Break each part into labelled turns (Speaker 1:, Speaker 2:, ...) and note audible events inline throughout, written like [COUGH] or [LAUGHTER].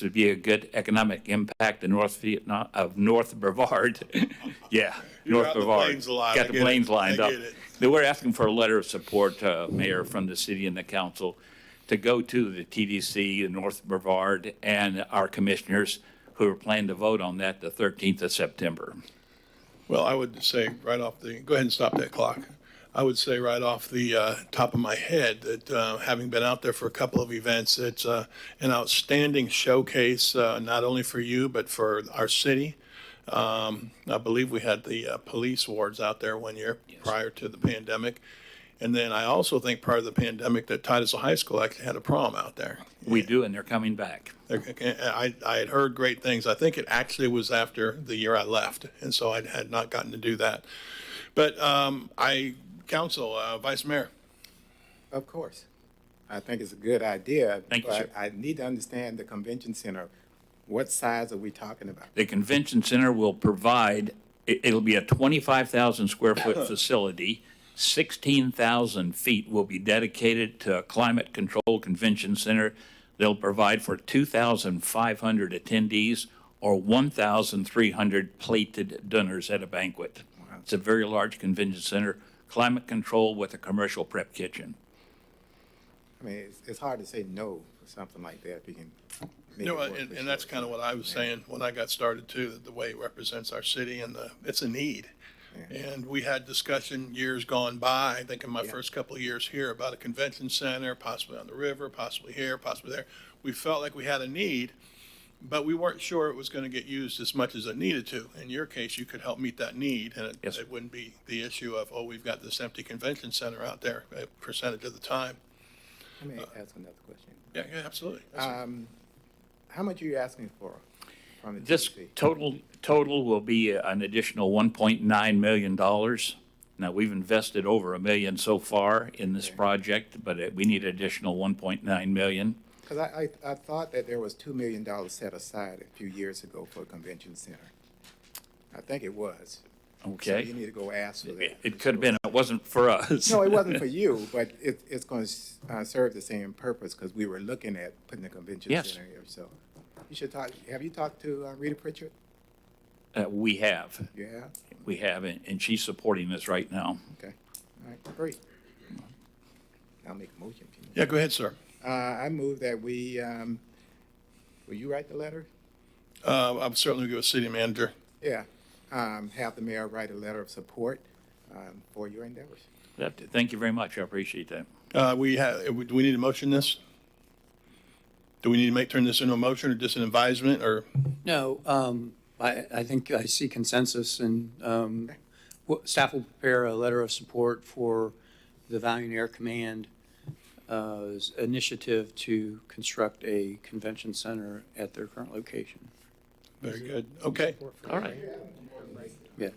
Speaker 1: to be a good economic impact in North Vietnam, of North Brevard. [LAUGHS] Yeah,
Speaker 2: You're
Speaker 1: North
Speaker 2: out in the
Speaker 1: Brevard.
Speaker 2: planes a lot. I
Speaker 1: Got the
Speaker 2: get it.
Speaker 1: planes lined
Speaker 2: I
Speaker 1: up.
Speaker 2: get it.
Speaker 1: They were asking for a letter of support, uh, Mayor, from the city and the council to go to the TDC, the North Brevard, and our commissioners who are planning to vote on that the 13th of September.
Speaker 2: Well, I would say right off the, go ahead and stop that clock. I would say right off the uh, top of my head that uh, having been out there for a couple of events, it's uh, an outstanding showcase, uh, not only for you, but for our city. Um, I believe we had the uh, police wards out there one year prior to the pandemic. And then I also think prior to the pandemic that Titusville High School actually had a prom out there.
Speaker 1: We do, and they're coming back.
Speaker 2: I, I had heard great things. I think it actually was after the year I left, and so I had not gotten to do that. But um, I, council, uh, vice mayor,
Speaker 3: Of course. I think it's a good idea.
Speaker 1: Thank you, sir.
Speaker 3: But I need to understand the convention center. What size are we talking about?
Speaker 1: The convention center will provide, it- it'll be a 25,000 square foot facility. 16,000 feet will be dedicated to a climate control convention center. They'll provide for 2,500 attendees or 1,300 plated dinners at a banquet. It's a very large convention center, climate control with a commercial prep kitchen.
Speaker 3: I mean, it's, it's hard to say no for something like that if you can. make
Speaker 2: you know,
Speaker 3: it work
Speaker 2: and,
Speaker 3: for
Speaker 2: and that's
Speaker 3: sure.
Speaker 2: kind of what I was saying when I got started too, that the way it represents our city and the, it's a need. And we had discussion years gone by, I think in my first couple of years here, about a convention center, possibly on the river, possibly here, possibly there. We felt like we had a need, but we weren't sure it was going to get used as much as it needed to. In your case, you could help meet that need, and it,
Speaker 1: Yes, sir.
Speaker 2: it wouldn't be the issue of, oh, we've got this empty convention center out there, a percentage of the time.
Speaker 3: Let me
Speaker 2: uh,
Speaker 3: ask another question.
Speaker 2: Yeah, yeah, absolutely.
Speaker 1: Uh,
Speaker 3: Um, how much are you asking for from the
Speaker 1: This
Speaker 3: TDC?
Speaker 1: total, total will be an additional $1.9 million. Now, we've invested over a million so far in this project, but it- we need additional 1.9 million.
Speaker 3: Because I, I, I thought that there was two million dollars set aside a few years ago for a convention center. I think it was. So you
Speaker 1: Okay?
Speaker 3: need to go ask for
Speaker 1: It
Speaker 3: that.
Speaker 1: it could have been, it wasn't for us.
Speaker 3: No, it wasn't for
Speaker 1: [LAUGHS]
Speaker 3: you, but it, it's going to serve the same purpose because we were looking at putting a convention
Speaker 1: Yes.
Speaker 3: center here, so. You should talk, have you talked to uh, Rita Pritchard?
Speaker 1: Uh, We have,
Speaker 3: Yeah,
Speaker 1: we have, and and she's supporting this right now.
Speaker 3: okay, all right, great. I'll make a motion. if you want.
Speaker 2: Yeah, go ahead, sir.
Speaker 3: Uh, I move that we, um, will you write the letter?
Speaker 2: Uh, I'm certainly going to city manager.
Speaker 3: Yeah, um, have the mayor write a letter of support, um, for your endeavors.
Speaker 1: That- Thank you very much, I appreciate that.
Speaker 2: Uh, we have, do we need to motion this? Do we need to make, turn this into a motion or just an advisement or?
Speaker 4: No, um, I, I think I see consensus and, um, wh- staff will prepare a letter of support for the Valiant Air Command, uh's initiative to construct a convention center at their current location.
Speaker 2: Very good. Okay.
Speaker 1: All right.
Speaker 4: Yeah.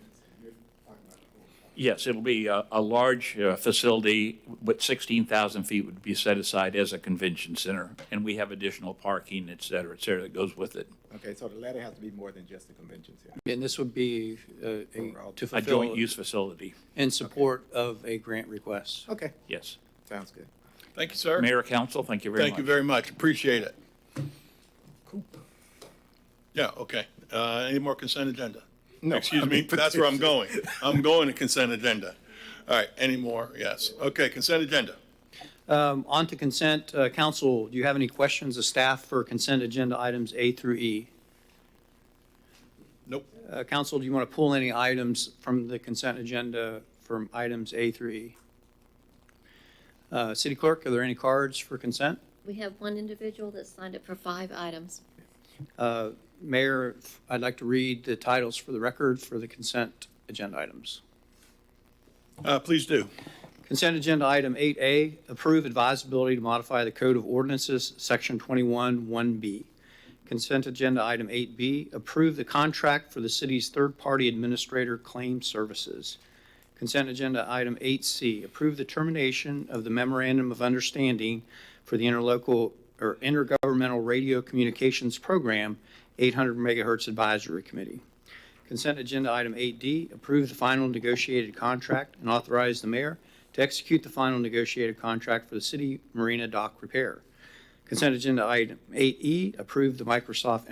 Speaker 1: Yes, it'll be a, a large uh, facility, but 16,000 feet would be set aside as a convention center, and we have additional parking, et cetera, et cetera, that goes with it.
Speaker 3: Okay, so the letter has to be more than just the convention center.
Speaker 4: And this would be, uh, a- to
Speaker 1: A joint
Speaker 4: fulfill
Speaker 1: use facility,
Speaker 4: in support of a grant request.
Speaker 3: Okay,
Speaker 1: yes.
Speaker 3: sounds good.
Speaker 2: Thank you, sir.
Speaker 1: Mayor, council, thank you very much.
Speaker 2: Thank you very much. Appreciate it. Yeah, okay. Uh, any more consent agenda?
Speaker 3: No,
Speaker 2: Excuse
Speaker 3: I
Speaker 2: me,
Speaker 3: mean,
Speaker 2: that's
Speaker 3: [LAUGHS]
Speaker 2: where I'm going. I'm going to consent agenda. All right, any more? Yes. Okay, consent agenda.
Speaker 4: Um, on to consent, uh, council, do you have any questions of staff for consent agenda items A through E?
Speaker 2: Nope.
Speaker 4: Uh, Council, do you want to pull any items from the consent agenda from items A through E? Uh, City Clerk, are there any cards for consent?
Speaker 5: We have one individual that signed up for five items.
Speaker 4: Uh, Mayor, I'd like to read the titles for the record for the consent agenda items.
Speaker 2: Uh, please do.
Speaker 4: Consent agenda item 8A, approve advisability to modify the Code of Ordinances, Section 21, 1B. Consent agenda item 8B, approve the contract for the city's third-party administrator claim services. Consent agenda item 8C, approve the termination of the memorandum of understanding for the interlocal or intergovernmental radio communications program, 800 megahertz advisory committee. Consent agenda item 8D, approve the final negotiated contract and authorize the mayor to execute the final negotiated contract for the city marina dock repair. Consent agenda item 8E, E, approve the Microsoft